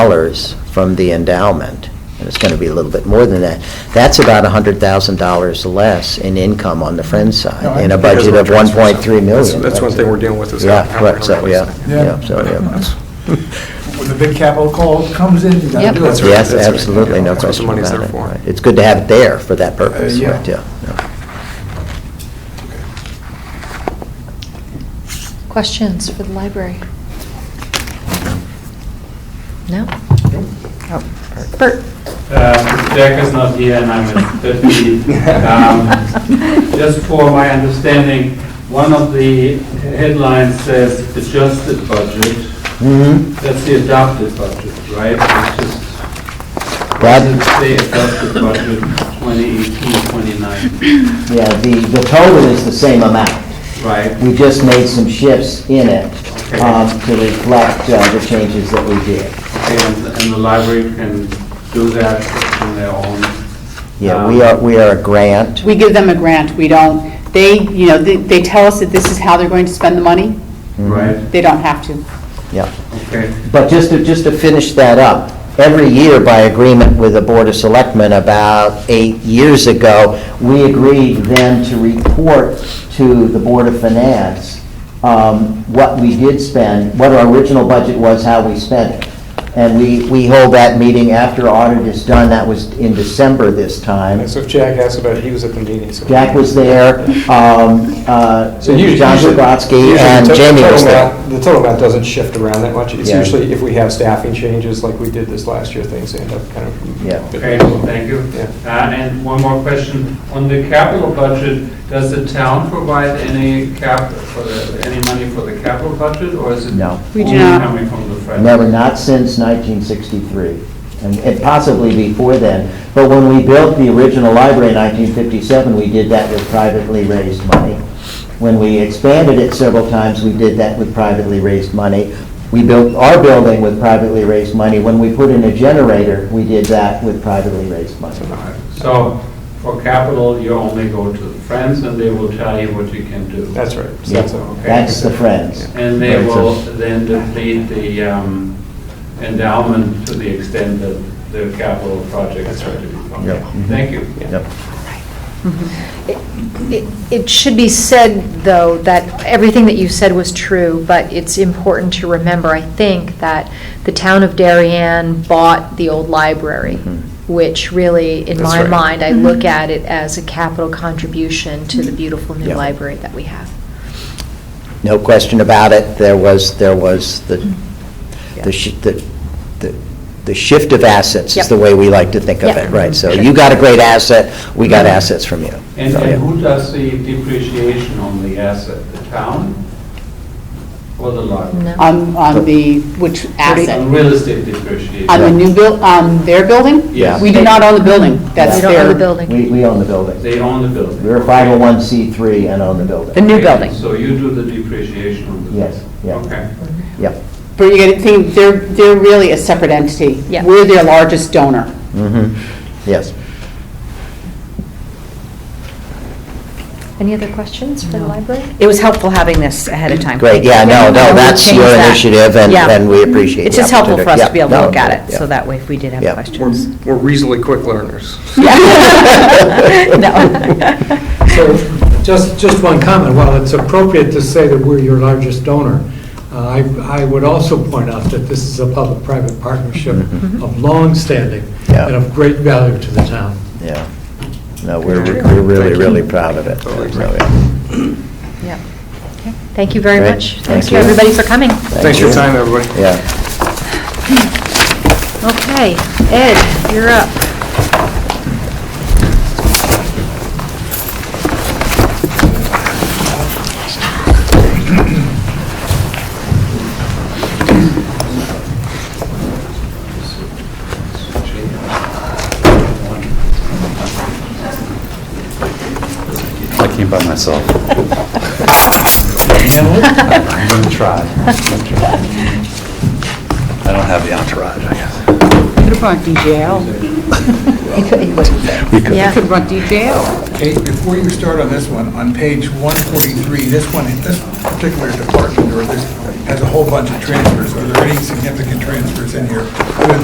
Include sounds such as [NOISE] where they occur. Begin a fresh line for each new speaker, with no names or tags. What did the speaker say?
dollars from the endowment, and it's going to be a little bit more than that. That's about $100,000 less in income on the Friends
No, I
side, in a
think it
budget of 1.3
That's-
million.
That's one thing we're dealing with is how
Yeah,
how we're
correct,
going to
so,
replace
yeah,
that.
Yeah.
yeah,
[LAUGHS]
so, yeah.
When the big capital call comes in, you gotta
Yep.
do it.
That's right,
Yes,
that's right.
absolutely, no
That's what the
question about it.
money's there for.
right. It's good to have it there for that purpose,
yeah.
right, yeah. yeah.
Questions for the library? No? Bert?
Uh, Jack is not here, and I'm at 50. Um, Just for my understanding, one of the headlines says adjusted budget.
Mm-hmm.
That's the adopted budget, right? It's just, why
That-
does it say adjusted budget 2018, 29,
Yeah, the, the total is the same amount.
right?
We just made some shifts in it
Okay.
um, to reflect uh, the changes that we did.
And and the library can do that on their own.
Yeah, we are, we are a grant.
We give them a grant, we don't, they, you know, they- they tell us that this is how they're going to spend the money,
Right,
they don't have to.
Yeah.
okay.
But just to, just to finish that up, every year by agreement with the Board of Selectmen about eight years ago, we agreed then to report to the Board of Finance um, what we did spend, what our original budget was, how we spent it. And we, we hold that meeting after audit is done, that was in December this time.
And So if Jack asked about it, he was at the meeting, so.
Jack was there, um, uh,
So usually-
John
usually- usually
Zabrowski,
the
and
to-
Jamie
total
was there.
amount- The total amount doesn't shift around that much. It's
Yeah.
usually if we have staffing changes like we did this last year, things end up kind of.
Yeah.
Okay, thank you.
Yeah.
Uh, And one more question. On the capital budget, does the town provide any cap, for the- any money for the capital budget, or is it?
No.
We do
only
not.
Coming from the Fed?
Never, not since 1963, and- and possibly before then. But when we built the original library in 1957, we did that with privately raised money. When we expanded it several times, we did that with privately raised money. We built our building with privately raised money. When we put in a generator, we did that with privately raised money.
So for capital, you only go to the Friends, and they will tell you what you can do.
That's right. So
Yeah,
that's all.
That's the Friends.
And they
Right, so-
will then deplete the um, endowment to the extent that the capital projects are to be funded.
Yep. Mhm.
Thank you.
Yep.
It- It should be said, though, that everything that you said was true, but it's important to remember, I think, that the town of Darien bought the old library,
Mhm.
which really, in
That's
my
right.
mind, I look at it as a capital contribution to the beautiful new
Yeah.
library that we have.
No question about it, there was, there was the,
Mm-hmm.
the shi- the, the- the shift of assets is
Yep.
the way we like to think of
Yeah.
it, right? So
Sure.
you got a great asset, we got
Mm-hmm.
assets from you.
And
So, yeah.
and who does the depreciation on the asset? The town or the library?
No?
On, on the, which
On
asset?
real estate depreciation?
On the new buil, on their building?
Yes.
We do not own the building, that's
We
their.
don't own the building.
We, we own the building.
They own the building?
We're a 501c3 and own the
The
building.
new building.
So you do the depreciation on the
Yes,
building?
yeah.
Okay.
Yep.
But you gotta think, they're, they're really a separate entity.
Yeah.
We're their largest donor.
Mhm. Yes.
Any other questions for the library?
It was helpful having this ahead of time.
Great, yeah, no, no,
We'll
that's
change
your
that.
initiative and,
Yeah.
and we appreciate the
It's just helpful for us to be able to look at it, so
that.
that way if we did
Yeah.
have
We're
questions.
we're reasonably quick learners.
[LAUGHS] No.
So, just, just one comment, while it's appropriate to say that we're your largest donor, uh, I, I would also point out that this is a public-private partnership of long-standing
Mm-hmm. Yeah.
and of great value to the town.
Yeah. No, we're, we're really, really proud of it. So, yeah.
Yeah. Okay. Thank you very
Great.
much.
Thank
Thanks to
you.
everybody for coming.
Thanks for your
you.
time, everybody.
Yeah.
Okay, Ed, you're up.
I came by myself. I'm going to try. I don't have the entourage, I guess.
Could have brought DJ
[LAUGHS]
We could.
Yeah.
have brought DJ
Okay, before you start on this one, on page 143, this one, this particular department or this has a whole bunch of transfers. Are there any significant transfers in here? Other than